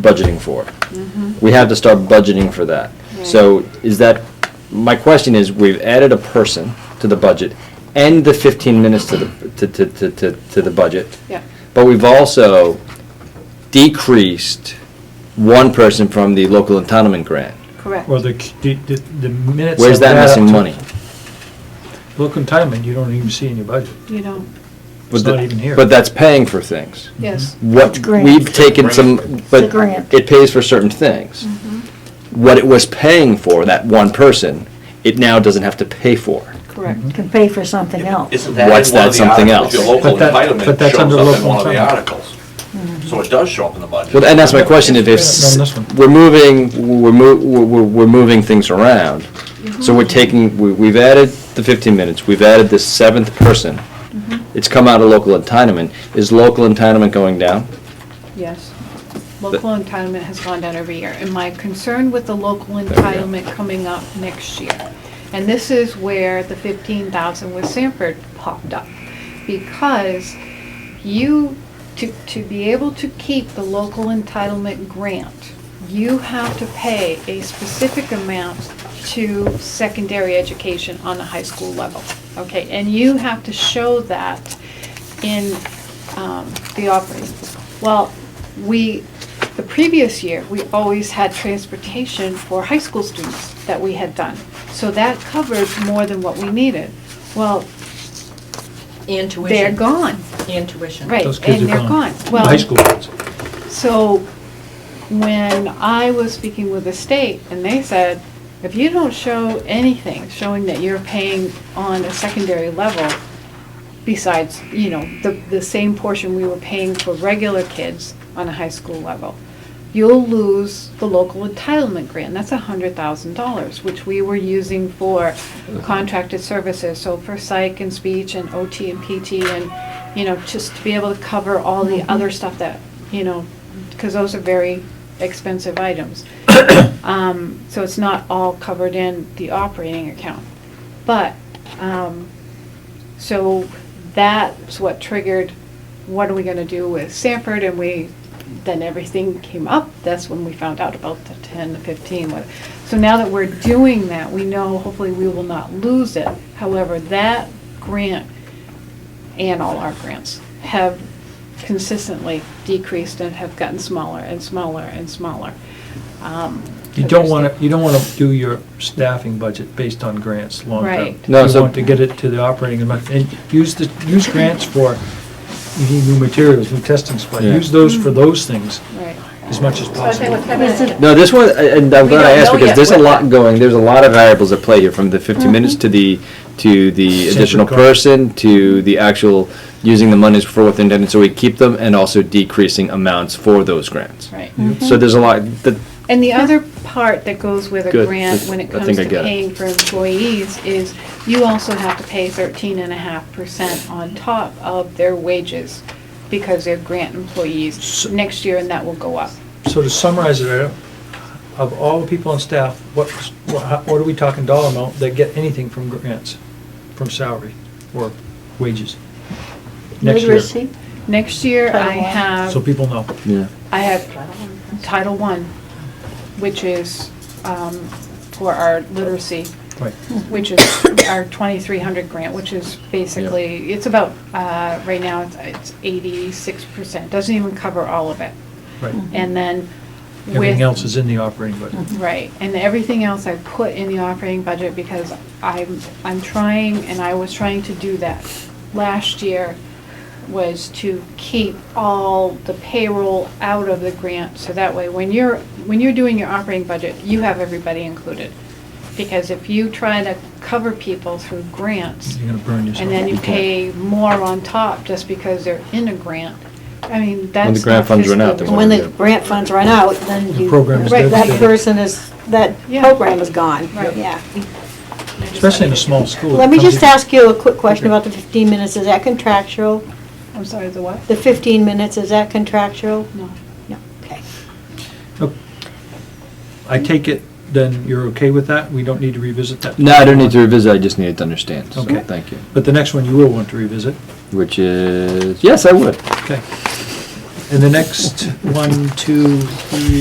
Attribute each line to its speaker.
Speaker 1: budgeting for. We have to start budgeting for that. So is that, my question is, we've added a person to the budget and the 15 minutes to the, to, to, to, to to the budget.
Speaker 2: Yeah.
Speaker 1: But we've also decreased one person from the local entitlement grant.
Speaker 2: Correct.
Speaker 3: Or the, the, the minutes.
Speaker 1: Where's
Speaker 3: that
Speaker 1: that
Speaker 3: add up
Speaker 1: missing
Speaker 3: to-
Speaker 1: money?
Speaker 3: Look in time and you don't even see in your budget.
Speaker 2: You know,
Speaker 1: But
Speaker 3: It's not
Speaker 1: the-
Speaker 3: even here.
Speaker 1: But that's paying for things.
Speaker 2: yes.
Speaker 1: What,
Speaker 4: grant.
Speaker 1: we've taken some,
Speaker 4: a
Speaker 1: but
Speaker 4: grant.
Speaker 1: it pays for certain things.
Speaker 2: Mm-hmm.
Speaker 1: What it was paying for, that one person, it now doesn't have to pay for.
Speaker 2: Correct.
Speaker 4: can pay for something else.
Speaker 5: Isn't that in
Speaker 1: What's
Speaker 5: one
Speaker 1: that
Speaker 5: of the
Speaker 1: something
Speaker 5: articles?
Speaker 1: else?
Speaker 5: Your local
Speaker 3: But that- but
Speaker 5: entitlement
Speaker 3: that's under
Speaker 5: shows up in
Speaker 3: local
Speaker 5: one of the
Speaker 3: entitlement.
Speaker 5: articles. So it does show up in the budget.
Speaker 1: Well, and that's my question, if,
Speaker 3: On this one.
Speaker 1: if, we're moving, we're, mo- we're, we're- we're moving things around. So we're taking, we, we've added the fifteen minutes, we've added this seventh person. It's come out of local entitlement. Is local entitlement going down?
Speaker 2: Yes. Local entitlement has gone down every year, and my concern with the local
Speaker 1: we go.
Speaker 2: entitlement coming up next year, and this is where the fifteen thousand with Sanford popped up, because you, to, to be able to keep the local entitlement grant, you have to pay a specific amount to secondary education on the high school level, okay? And you have to show that in um, the operating. Well, we, the previous year, we always had transportation for high school students that we had done. So that covered more than what we needed. Well,
Speaker 6: And tuition.
Speaker 2: they're gone,
Speaker 6: And tuition.
Speaker 2: Right.
Speaker 3: Those kids
Speaker 2: and
Speaker 3: are
Speaker 2: they're gone.
Speaker 3: gone. The
Speaker 2: Well-
Speaker 3: High school kids.
Speaker 2: So when I was speaking with the state, and they said, if you don't show anything showing that you're paying on a secondary level, besides, you know, the, the same portion we were paying for regular kids on a high school level, you'll lose the local entitlement grant. That's a hundred thousand dollars, which we were using for contracted services, so for psych and speech and OT and PT and, you know, just to be able to cover all the other stuff that, you know, because those are very expensive items. Um, So it's not all covered in the operating account. But, um, so that's what triggered, what are we gonna do with Sanford? And we, then everything came up. That's when we found out about the ten, the fifteen. what- So now that we're doing that, we know hopefully we will not lose it. However, that grant and all our grants have consistently decreased and have gotten smaller and smaller and smaller. Um,
Speaker 3: You don't want to, you don't want to do your staffing budget based on grants long term.
Speaker 2: Right.
Speaker 1: No, so-
Speaker 3: You want to get it to the operating amount, and use the, use grants for, you need new materials, new testing supplies.
Speaker 1: Yeah.
Speaker 3: Use those for those things
Speaker 2: Mm-hmm. Right.
Speaker 3: as much as possible.
Speaker 4: Is it-
Speaker 1: No, this one, and I'm
Speaker 6: We
Speaker 1: glad I
Speaker 6: don't
Speaker 1: asked
Speaker 6: know
Speaker 1: because
Speaker 6: yet
Speaker 1: there's a
Speaker 6: what
Speaker 1: lot
Speaker 6: the- Mm-hmm.
Speaker 1: going, there's a lot of variables at play here, from the 50 minutes to the, to the
Speaker 3: Separate
Speaker 1: additional
Speaker 3: cost.
Speaker 1: person, to the actual using the monies for what intended, so we keep them, and also decreasing amounts for those grants.
Speaker 2: Right.
Speaker 6: Mm-hmm.
Speaker 1: So there's a lot, that,
Speaker 2: And the other part that goes with a
Speaker 1: Good.
Speaker 2: grant when
Speaker 1: I
Speaker 2: it
Speaker 1: think
Speaker 2: comes
Speaker 1: I
Speaker 2: to
Speaker 1: get it.
Speaker 2: paying for employees is you also have to pay thirteen and a half percent on top of their wages because they're grant employees
Speaker 3: So-
Speaker 2: next year and that will go up.
Speaker 3: So to summarize it, Eric, of all the people on staff, what, what how- what are we talking dollar amount that get anything from grants, from salary or wages? Next year.
Speaker 4: Literacy,
Speaker 2: Next year
Speaker 4: Title
Speaker 2: I
Speaker 4: I.
Speaker 3: So
Speaker 2: have,
Speaker 3: people know.
Speaker 1: yeah.
Speaker 2: I have Title One, which is um, for our literacy,
Speaker 3: Right.
Speaker 2: which is our twenty-three hundred grant, which is basically, it's about, uh, right now it's- it's eighty-six percent, doesn't even cover all of it.
Speaker 3: Right.
Speaker 2: And then with.
Speaker 3: Everything else is in the operating budget.
Speaker 2: Right, and everything else I put in the operating budget because I'm, I'm trying, and I was trying to do that last year, was to keep all the payroll out of the grant, so that way, when you're, when you're doing your operating budget, you have everybody included. Because if you try to cover people through
Speaker 4: Mm-hmm.
Speaker 2: grants,
Speaker 1: Mm-hmm.
Speaker 3: You're gonna burn yourself.
Speaker 2: and then you
Speaker 1: can't.
Speaker 2: pay more on top just because they're in a grant, I mean, that's.
Speaker 1: the grant
Speaker 2: not
Speaker 1: funds run
Speaker 2: fiscally
Speaker 1: out, then
Speaker 4: and when the grant funds run out, then
Speaker 3: The
Speaker 4: you,
Speaker 3: program
Speaker 2: is
Speaker 4: right, that
Speaker 2: devastated.
Speaker 4: person is, that
Speaker 2: Yeah.
Speaker 4: program is gone,
Speaker 2: Right.
Speaker 4: yeah.
Speaker 3: Especially in a small school. it
Speaker 4: Let me
Speaker 3: comes
Speaker 4: just
Speaker 3: in-
Speaker 4: ask you a quick question
Speaker 3: Okay.
Speaker 4: about the 15 minutes, is that contractual?
Speaker 2: I'm sorry, the what?
Speaker 4: The 15 minutes, is that contractual?
Speaker 2: No.
Speaker 4: No, okay.
Speaker 3: Oh, I take it, then you're okay with that? We don't need to revisit that?
Speaker 1: No, I don't need to revisit, I just needed to understand, so,
Speaker 3: Okay.
Speaker 1: thank you.
Speaker 3: But the next one you will want to revisit,
Speaker 1: Which is, yes, I would.
Speaker 3: okay. And the next, one, two, three,